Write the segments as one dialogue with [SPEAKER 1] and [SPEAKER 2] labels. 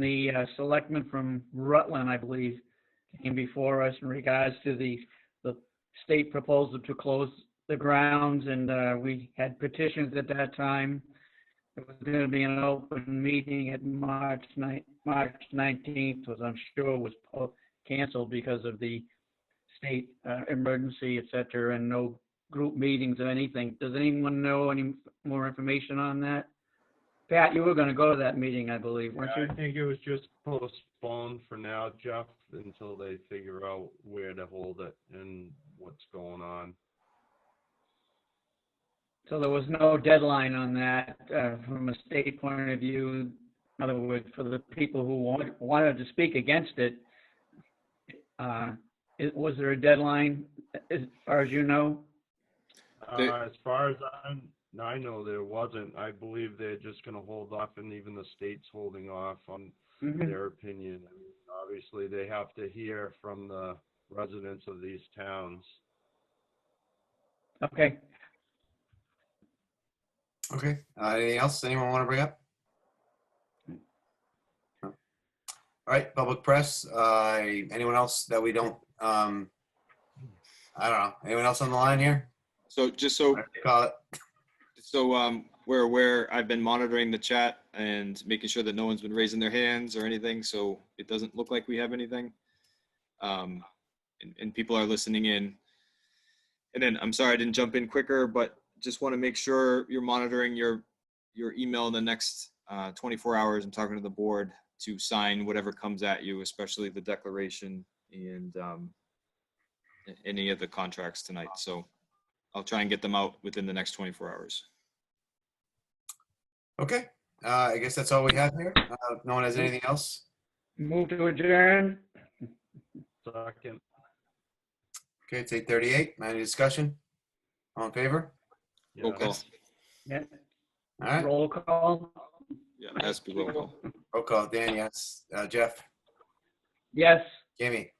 [SPEAKER 1] the uh, selectman from Rutland, I believe, came before us in regards to the, the state proposal to close the grounds, and uh, we had petitions at that time. It was going to be an open meeting at March 9, March 19th, was I'm sure was po- canceled because of the state uh, emergency, et cetera, and no group meetings or anything. Does anyone know any more information on that? Pat, you were going to go to that meeting, I believe, weren't you?
[SPEAKER 2] I think it was just postponed for now, Jeff, until they figure out where to hold it and what's going on.
[SPEAKER 1] So there was no deadline on that uh, from a state point of view. In other words, for the people who want- wanted to speak against it, uh, it- was there a deadline, as far as you know?
[SPEAKER 3] They-
[SPEAKER 2] Uh, as far as I'm, I know there wasn't. I believe they're just gonna hold off and even the state's holding off on
[SPEAKER 1] Mhm.
[SPEAKER 2] their opinion. I mean, Obviously, they have to hear from the residents of these towns.
[SPEAKER 1] Okay,
[SPEAKER 3] Okay, uh, anything else anyone want to bring up? No. All right, public press, uh, anyone else that we don't, um, I don't know, anyone else on the line here?
[SPEAKER 4] So just so,
[SPEAKER 3] Call it,
[SPEAKER 4] so um, we're aware, I've been monitoring the chat and making sure that no one's been raising their hands or anything, so it doesn't look like we have anything. Um, and, and people are listening in. And then, I'm sorry I didn't jump in quicker, but just want to make sure you're monitoring your, your email in the next uh, 24 hours. I'm talking to the board to sign whatever comes at you, especially the declaration and um, a- any of the contracts tonight. So I'll try and get them out within the next 24 hours.
[SPEAKER 3] okay, uh, I guess that's all we have here. Uh, if no one has anything else?
[SPEAKER 1] move to adjourn.
[SPEAKER 2] Second,
[SPEAKER 3] Okay, it's eight thirty-eight, any discussion? All in favor?
[SPEAKER 2] yeah.
[SPEAKER 4] Roll call.
[SPEAKER 1] Yeah,
[SPEAKER 3] All right,
[SPEAKER 1] Roll call.
[SPEAKER 4] Yeah, it has to be roll call.
[SPEAKER 3] roll call, Dan, yes, uh, Jeff,
[SPEAKER 1] Yes.
[SPEAKER 3] Jamie,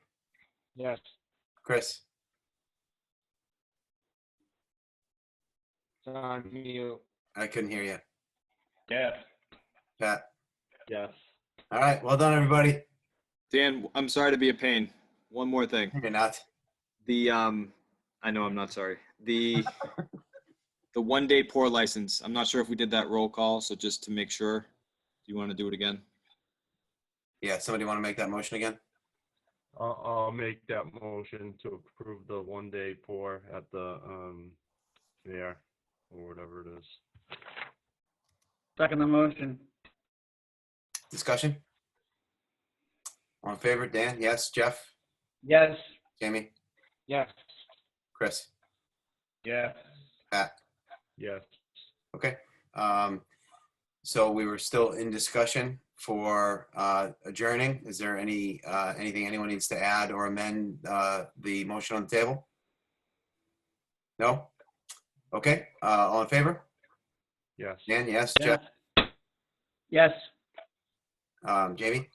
[SPEAKER 1] Yes.
[SPEAKER 3] Chris, I couldn't hear you,
[SPEAKER 1] Yes.
[SPEAKER 3] Pat.
[SPEAKER 2] Yes.
[SPEAKER 3] All right, well done, everybody.
[SPEAKER 4] Dan, I'm sorry to be a pain. One more thing.
[SPEAKER 3] You're not,
[SPEAKER 4] The um, I know I'm not sorry. The the one day pour license. I'm not sure if we did that roll call, so just to make sure, do you want to do it again?
[SPEAKER 3] yeah, somebody want to make that motion again?
[SPEAKER 2] I'll, I'll make that motion to approve the one-day pour at the, um, fair, or whatever it is.
[SPEAKER 1] Second the motion.
[SPEAKER 3] Discussion? All in favor, Dan? Yes, Jeff?
[SPEAKER 1] Yes.
[SPEAKER 3] Jamie?
[SPEAKER 1] Yes.
[SPEAKER 3] Chris?
[SPEAKER 1] Yes.
[SPEAKER 3] Pat?
[SPEAKER 2] Yes.
[SPEAKER 3] Okay. Um, so we were still in discussion for, uh, adjourning. Is there any, uh, anything anyone needs to add or amend, uh, the motion on the table? No? Okay, uh, all in favor?
[SPEAKER 2] Yes.
[SPEAKER 3] Dan, yes, Jeff?
[SPEAKER 1] Yes.
[SPEAKER 3] Um, Jamie?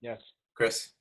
[SPEAKER 1] Yes.
[SPEAKER 3] Chris?